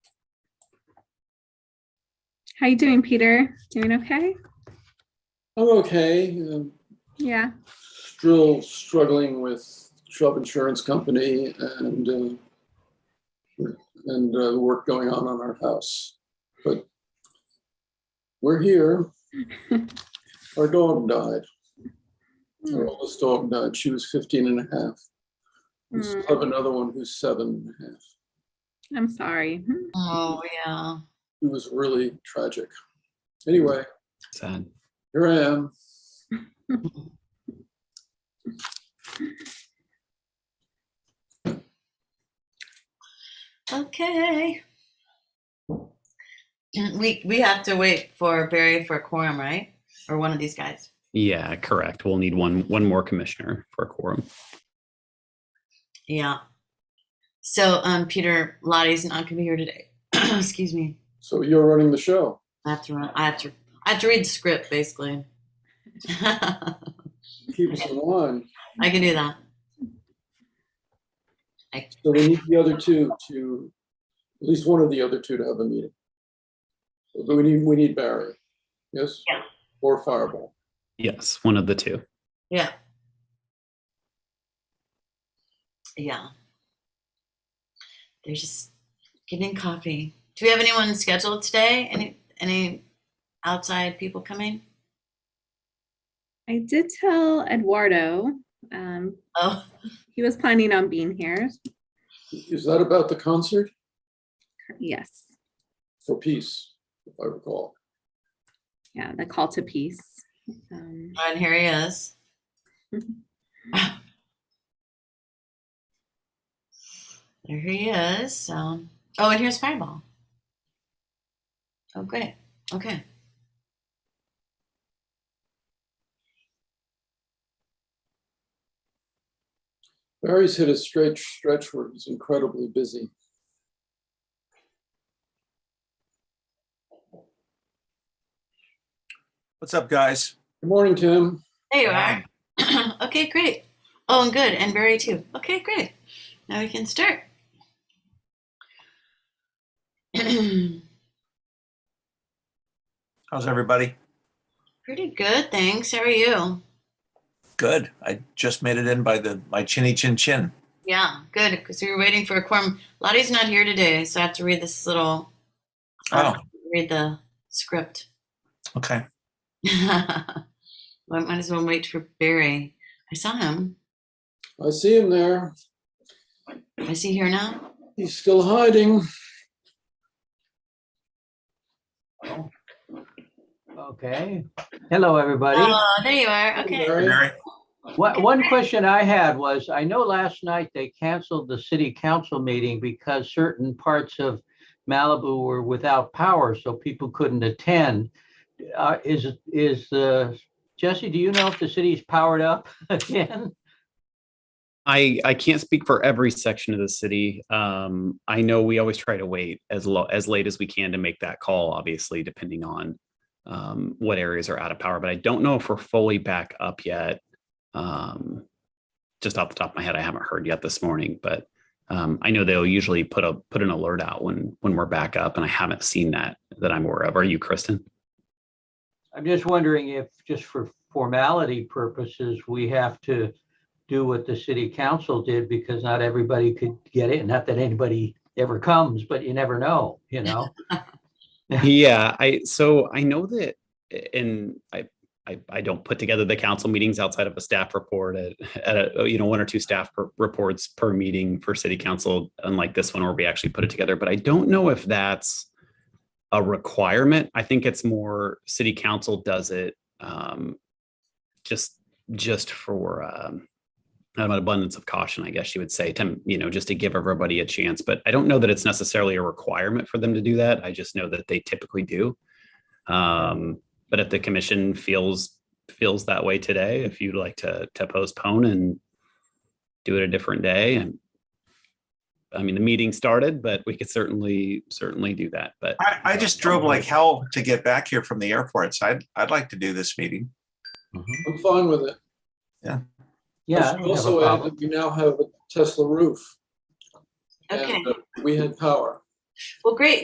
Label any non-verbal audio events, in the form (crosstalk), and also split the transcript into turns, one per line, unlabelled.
How you doing, Peter? Doing okay?
I'm okay. um,
Yeah.
Still struggling with Chubb Insurance Company and uh, and uh, work going on on our house, but we're here. Our dog died.
Hmm.
Our oldest dog died. She was 15 and a half. We still have another one who's seven and a half.
Hmm. I'm sorry. Hmm.
Oh, yeah.
It was really tragic. Anyway,
Sad.
here I am.
Okay. And We, we have to wait for Barry for quorum, right? Or one of these guys.
Yeah, correct. We'll need one, one more commissioner for a quorum.
Yeah. So, um, Peter Lottie's not gonna be here today. (clears throat) Excuse me.
So you're running the show.
I have to run, I have to, I have to read the script basically. (laughs) I
Keep us in line.
can do that.
So we need the other two to, at least one of the other two to have a meeting. But we need, we need Barry, yes?
Yeah.
Or Fireball.
Yes, one of the two.
Yeah. Yeah. They're just getting coffee. Do we have anyone scheduled today? Any any outside people coming?
I did tell Eduardo. Um,
Oh,
he was planning on being here.
Is that about the concert
Yes.
for peace, if I recall?
Yeah. The call to peace. Um,
and here he is. (laughs) there he is. So, oh, and here's Fireball. Oh, great. Okay.
Barry's hit a stretch, stretch where he's incredibly busy.
What's up, guys?
Good morning, Tim.
There you are. (clears throat) okay, great. Oh, and good. And Barry, too. Okay, great. Now we can start. (clears throat) Pretty
How's everybody?
good. Thanks. How are you?
Good. I just made it in by the my chinny chin chin.
Yeah, good. Because we were waiting for a quorum. Lottie's not here today, so I have to read this little. I have
Oh.
to Read the script.
Okay.
well, I (laughs) might as well wait for Barry. I saw him.
I see him there.
Is he here now?
He's still hiding.
Okay. Hello, everybody.
Oh, there you are. Okay.
Barry,
Mary?
One, one question I had was, I know last night they canceled the city council meeting because certain parts of Malibu were without power, so people couldn't attend. Uh, is, is, uh, Jesse, do you know if the city's powered up (laughs) again?
I, I can't speak for every section of the city. Um, I know we always try to wait as lo, as late as we can to make that call, obviously, depending on um, what areas are out of power, but I don't know if we're fully back up yet. Um, just off the top of my head, I haven't heard yet this morning, but um, I know they'll usually put a, put an alert out when, when we're back up and I haven't seen that, that I'm aware of. Are you, Kristen?
I'm just wondering if, just for formality purposes, we have to do what the city council did because not everybody could get it. Not that anybody ever comes, but you never know, you know?
(laughs) yeah i so i know that and I, I i don't put together the council meetings outside of a staff report at, at a, you know one or two staff per- reports per meeting for city council unlike this one where we actually put it together but i don't know if that's a requirement i think it's more city council does it um just just for um out of an abundance of caution, I guess you would say, to you know, just to give everybody a chance. But I don't know that it's necessarily a requirement for them to do that. I just know that they typically do. Um, but if the commission feels feels that way today, if you'd like to to postpone and do it a different day, and I mean, the meeting started, but we could certainly certainly do that. But
I, I just drove like hell to get back here from the airport, so I'd I'd like to do this meeting.
I'm fine with it.
Yeah. I
I should
don't have a
Also, add
problem.
that we now have a Tesla roof.
Okay.
and uh, We had power.
Well, great.